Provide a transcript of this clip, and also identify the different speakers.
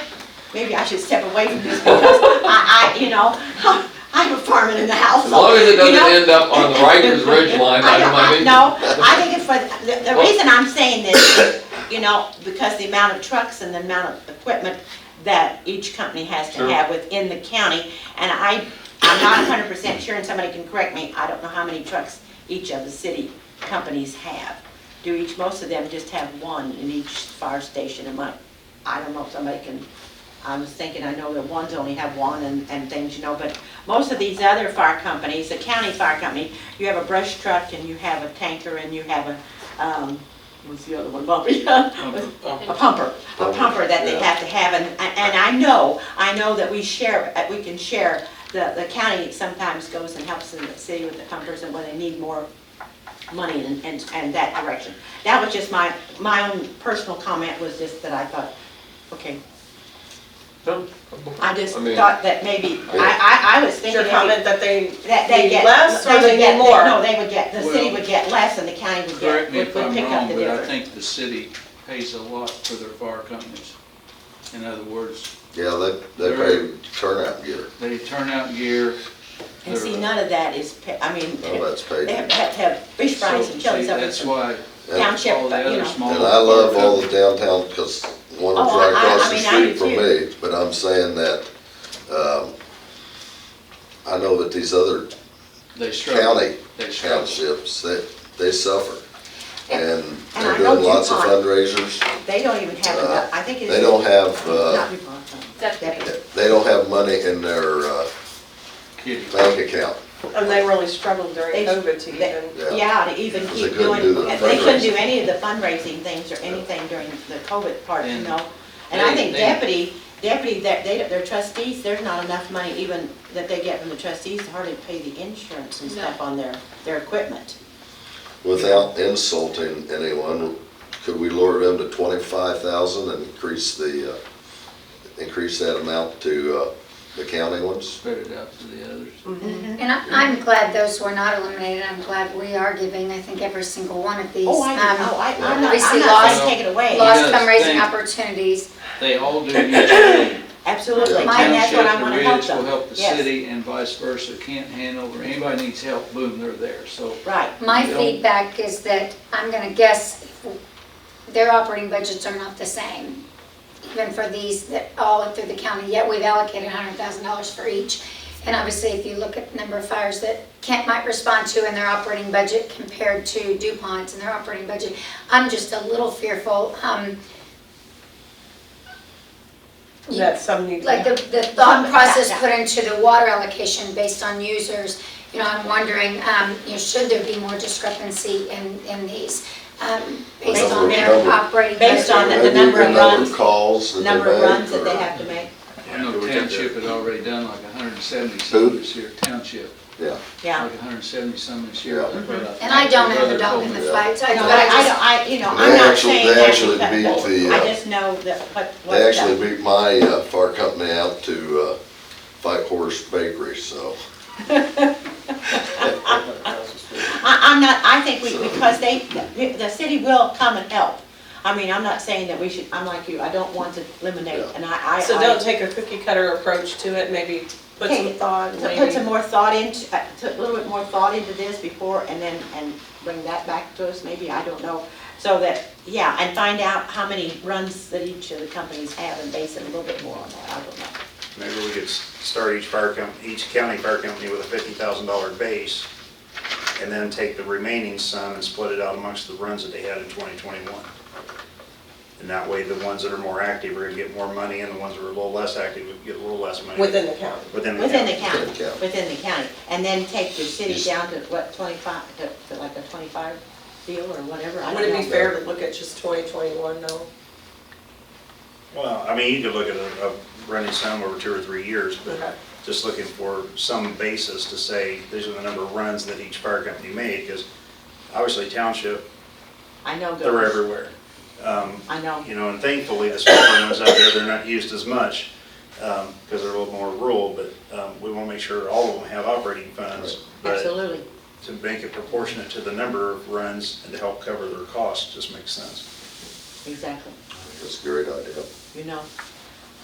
Speaker 1: maybe I should step away from this because I, I, you know, I'm a farmer in the house.
Speaker 2: As long as it
Speaker 1: you know?
Speaker 2: doesn't end up on the Rikers Ridge line, I
Speaker 1: I
Speaker 2: don't
Speaker 1: don't, I,
Speaker 2: mind.
Speaker 1: no, I think it's for, the, the
Speaker 2: Well-
Speaker 1: reason I'm saying this, you know, because the amount of trucks and the amount of equipment that each company has to
Speaker 2: Sure.
Speaker 1: have within the county, and I, I'm not hundred percent sure, and somebody can correct me, I don't know how many trucks each of the city companies have. Do each, most of them just have one in each fire station, am I, I don't know if somebody can, I was thinking, I know that ones only have one and, and things, you know, but most of these other fire companies, the county fire company, you have a brush truck and you have a tanker and you have a, um, what's the other one, Bobby? A pumper, a pumper that they have to have, and, and I know, I know that we share, that we can share, the, the county sometimes goes and helps the city with the pumpers and when they need more money and, and, and that direction. That was just my, my own personal comment was just that I thought, okay, I just
Speaker 2: I mean-
Speaker 1: thought that maybe,
Speaker 2: Yeah.
Speaker 1: I, I, I was
Speaker 3: Is
Speaker 1: thinking
Speaker 3: your
Speaker 1: maybe
Speaker 3: comment that they
Speaker 1: that they
Speaker 3: need
Speaker 1: get.
Speaker 3: less or
Speaker 1: would
Speaker 3: they
Speaker 1: get-
Speaker 3: need more?
Speaker 1: No, they would get, the city
Speaker 4: Well-
Speaker 1: would get less and the county would get,
Speaker 4: Correct me
Speaker 1: would
Speaker 4: if
Speaker 1: would
Speaker 4: I'm
Speaker 1: pick up the
Speaker 4: wrong, but I
Speaker 1: difference.
Speaker 4: think the city pays a lot for their fire companies. In other words,
Speaker 5: Yeah, they, they pay turnout gear,
Speaker 4: they turn out gear.
Speaker 1: And see,
Speaker 4: their-
Speaker 1: none of that is, pa- I mean,
Speaker 5: none
Speaker 4: Oh,
Speaker 5: of that's paid.
Speaker 1: they have,
Speaker 5: And
Speaker 1: have, have fish fries
Speaker 4: So,
Speaker 1: and
Speaker 4: see,
Speaker 1: chilies up
Speaker 4: That's why
Speaker 1: township,
Speaker 4: all the
Speaker 1: but, you
Speaker 4: other
Speaker 1: know.
Speaker 4: small.
Speaker 5: I love all the downtown, because one of
Speaker 1: Oh,
Speaker 5: them's
Speaker 1: I-
Speaker 5: right
Speaker 1: I- I
Speaker 5: across the
Speaker 1: mean, I
Speaker 5: street
Speaker 1: do
Speaker 5: from
Speaker 1: too.
Speaker 5: me, but I'm saying that, um, I know that these other
Speaker 4: They struggle.
Speaker 5: county
Speaker 4: They struggle.
Speaker 5: townships, they, they suffer. And
Speaker 1: And
Speaker 5: they're
Speaker 1: I know
Speaker 5: doing lots of
Speaker 1: DuPont.
Speaker 5: fundraisers,
Speaker 1: They don't even have
Speaker 5: Uh,
Speaker 1: enough, I think it's.
Speaker 5: they don't have,
Speaker 1: Not
Speaker 5: uh,
Speaker 1: DuPont, um,
Speaker 6: Deputy.
Speaker 5: they don't have money in their, uh,
Speaker 4: Kitty.
Speaker 5: bank account.
Speaker 3: And they really struggled during
Speaker 1: They-
Speaker 3: COVID to
Speaker 1: they-
Speaker 3: even,
Speaker 1: Yeah,
Speaker 5: Yeah.
Speaker 1: to even
Speaker 5: Because they
Speaker 1: keep
Speaker 5: couldn't
Speaker 1: doing,
Speaker 5: do the
Speaker 1: they couldn't do
Speaker 5: fundraising.
Speaker 1: any of the fundraising things or anything during the COVID part, you
Speaker 4: And
Speaker 1: know? And I
Speaker 4: they-
Speaker 1: think
Speaker 4: they-
Speaker 1: deputy, deputy, that they, their trustees, there's not enough money even that they get from the trustees to hardly pay the insurance and
Speaker 6: No.
Speaker 1: stuff on their, their equipment.
Speaker 5: Without insulting anyone, could we lower them to twenty-five thousand and increase the, uh, increase that amount to, uh, the county ones?
Speaker 4: Spread it out to the others.
Speaker 6: And I- I'm glad those were not eliminated. I'm glad we are giving, I think, every single one of these.
Speaker 1: Oh, I,
Speaker 6: um,
Speaker 1: oh, I, I'm not,
Speaker 6: we see
Speaker 1: I'm not
Speaker 4: laws-
Speaker 1: saying take it away.
Speaker 6: Lost
Speaker 4: Yes,
Speaker 6: fundraising
Speaker 4: thank-
Speaker 6: opportunities.
Speaker 4: They all do mutually.
Speaker 1: Absolutely,
Speaker 5: Yeah.
Speaker 1: and
Speaker 6: Mine-
Speaker 1: that's what
Speaker 4: Township,
Speaker 1: I
Speaker 4: the
Speaker 1: wanna help
Speaker 4: Ridge
Speaker 1: them.
Speaker 4: will help the
Speaker 1: Yes,
Speaker 4: city and vice versa. Can't handle, or anybody needs help, boom, they're there. So
Speaker 1: Right,
Speaker 6: My
Speaker 4: Yeah.
Speaker 6: feedback is that I'm going to guess their operating budgets are not the same, even for these that all through the county, yet we've allocated $100,000 for each. And obviously, if you look at the number of fires that Kent might respond to in their operating budget compared to DuPont's in their operating budget, I'm just a little fearful. um, you-
Speaker 3: that some need.
Speaker 6: like the, the
Speaker 1: Some-
Speaker 6: thought
Speaker 1: yeah,
Speaker 6: process
Speaker 1: yeah.
Speaker 6: put into the water allocation based on users, you know, I'm wondering, um, you know, should there be more discrepancy in, in these? Um, based on
Speaker 5: Number-
Speaker 6: their
Speaker 5: number.
Speaker 6: operating.
Speaker 1: Based on the-
Speaker 6: budget?
Speaker 1: the number of
Speaker 5: Maybe
Speaker 1: runs-
Speaker 5: calls that they
Speaker 1: number of
Speaker 5: make,
Speaker 1: runs that
Speaker 5: or-
Speaker 1: they have to make,
Speaker 4: I know
Speaker 5: Yeah.
Speaker 4: township had already done like hundred and seventy some
Speaker 5: Who?
Speaker 4: this year, township,
Speaker 5: Yeah,
Speaker 1: yeah.
Speaker 4: like hundred and seventy some this year.
Speaker 5: Yeah.
Speaker 4: That's what
Speaker 6: And I
Speaker 4: think
Speaker 6: don't
Speaker 4: your
Speaker 6: have
Speaker 4: brother
Speaker 6: a dog
Speaker 4: told
Speaker 6: in
Speaker 4: me
Speaker 6: the
Speaker 5: that.
Speaker 6: fight, so I
Speaker 1: No,
Speaker 6: don't, but
Speaker 1: I,
Speaker 6: I
Speaker 1: I
Speaker 6: just,
Speaker 1: don't, I, you know,
Speaker 5: They
Speaker 1: I'm not
Speaker 5: actually-
Speaker 1: saying
Speaker 5: they
Speaker 1: that
Speaker 5: actually
Speaker 1: because-
Speaker 5: beat the,
Speaker 1: I
Speaker 5: uh,
Speaker 1: just know that, what, what.
Speaker 5: they
Speaker 1: the-
Speaker 5: actually beat my, uh, fire company out to, uh, Five Horse Bakery, so.
Speaker 1: I, I'm not, I think we, because they, the- the city will come and help. I mean, I'm not saying that we should, I'm like you, I don't want to eliminate,
Speaker 5: Yeah.
Speaker 1: and I, I.
Speaker 3: So don't take a cookie cutter approach to it, maybe put some
Speaker 1: Okay.
Speaker 3: thought,
Speaker 1: I- Put some
Speaker 3: maybe.
Speaker 1: more thought into, uh, to- a little bit more thought into this before, and then, and bring that back to us, maybe, I don't know. So that, yeah, and find out how many runs that each of the companies have, and base it a little bit more on that, I don't know.
Speaker 7: Maybe we could s- start each fire company, each county fire company with a fifty thousand dollar base, and then take the remaining sum and split it out amongst the runs that they had in twenty twenty-one. And that way, the ones that are more active are gonna get more money, and the ones that are a little less active would get a little less money.
Speaker 3: Within the county.
Speaker 7: Within the
Speaker 1: Within the
Speaker 7: county.
Speaker 1: county,
Speaker 5: Within the county.
Speaker 1: within the county, and then take the city down to what, twenty-five, to to like a twenty-five deal or whatever, I
Speaker 3: Would it
Speaker 1: don't
Speaker 3: be
Speaker 1: know.
Speaker 3: fair to look at just twenty twenty-one though?
Speaker 7: Well, I mean, you could look at a, a running sum over two or three years,
Speaker 3: Okay.
Speaker 7: but just looking for some basis to say, these are the number of runs that each fire company made, because obviously township,
Speaker 1: I know.
Speaker 7: they're
Speaker 1: girls.
Speaker 7: everywhere. Um,
Speaker 1: I know.
Speaker 7: You know, and thankfully, the smaller ones out there, they're not used as much, because they're a little more rural, but um, we want to make sure all of them have operating funds. But
Speaker 1: Absolutely.
Speaker 7: to make it proportionate to the number of runs and to help cover their costs just makes sense.
Speaker 1: Exactly.
Speaker 5: That's a great idea.
Speaker 1: You know,